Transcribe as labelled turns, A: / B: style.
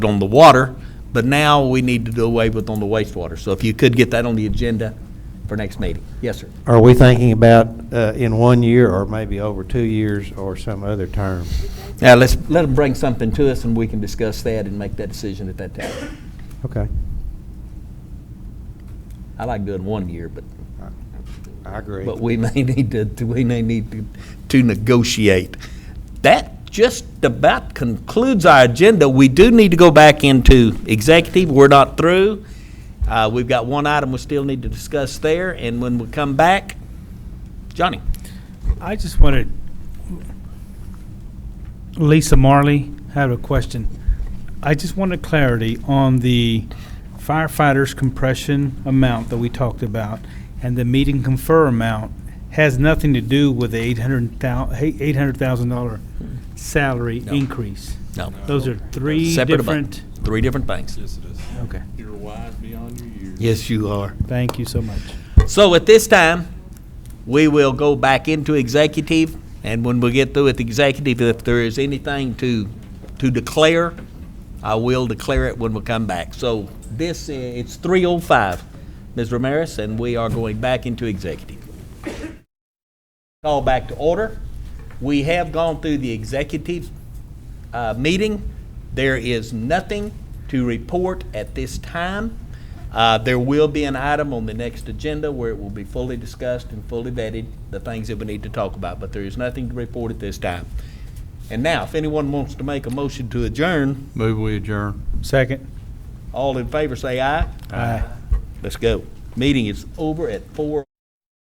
A: on the water, but now we need to do away with on the wastewater. So if you could get that on the agenda for next meeting. Yes, sir.
B: Are we thinking about uh, in one year, or maybe over two years, or some other term?
A: Now, let's, let them bring something to us and we can discuss that and make that decision at that time.
B: Okay.
A: I like doing one year, but,
B: I agree.
A: but we may need to, to- we may need to, to negotiate. That just about concludes our agenda. We do need to go back into executive. We're not through. Uh, we've got one item we still need to discuss there, and when we come back, Johnny.
C: I just wanted, Lisa Marley had a question. I just wanted clarity on the firefighters compression amount that we talked about and the meet and confer amount has nothing to do with the eight hundred thou, eight hundred thousand dollar salary increase.
A: No.
C: Those are three
A: Separate about-
C: different,
A: Three different things.
D: Yes, it is.
C: okay,
D: You're wise beyond your years.
A: Yes, you are.
C: thank you so much.
A: So at this time, we will go back into executive, and when we get through with executive, if there is anything to, to declare, I will declare it when we come back. So this, i- it's three oh five, Ms. Ramirez, and we are going back into executive. Call back to order. We have gone through the executive, uh, meeting. There is nothing to report at this time. Uh, there will be an item on the next agenda where it will be fully discussed and fully vetted, the things that we need to talk about, but there is nothing to report at this time. And now, if anyone wants to make a motion to adjourn,
D: Move we adjourn.
C: Second.
A: all in favor say aye.
C: Aye.
A: Let's go. Meeting is over at four.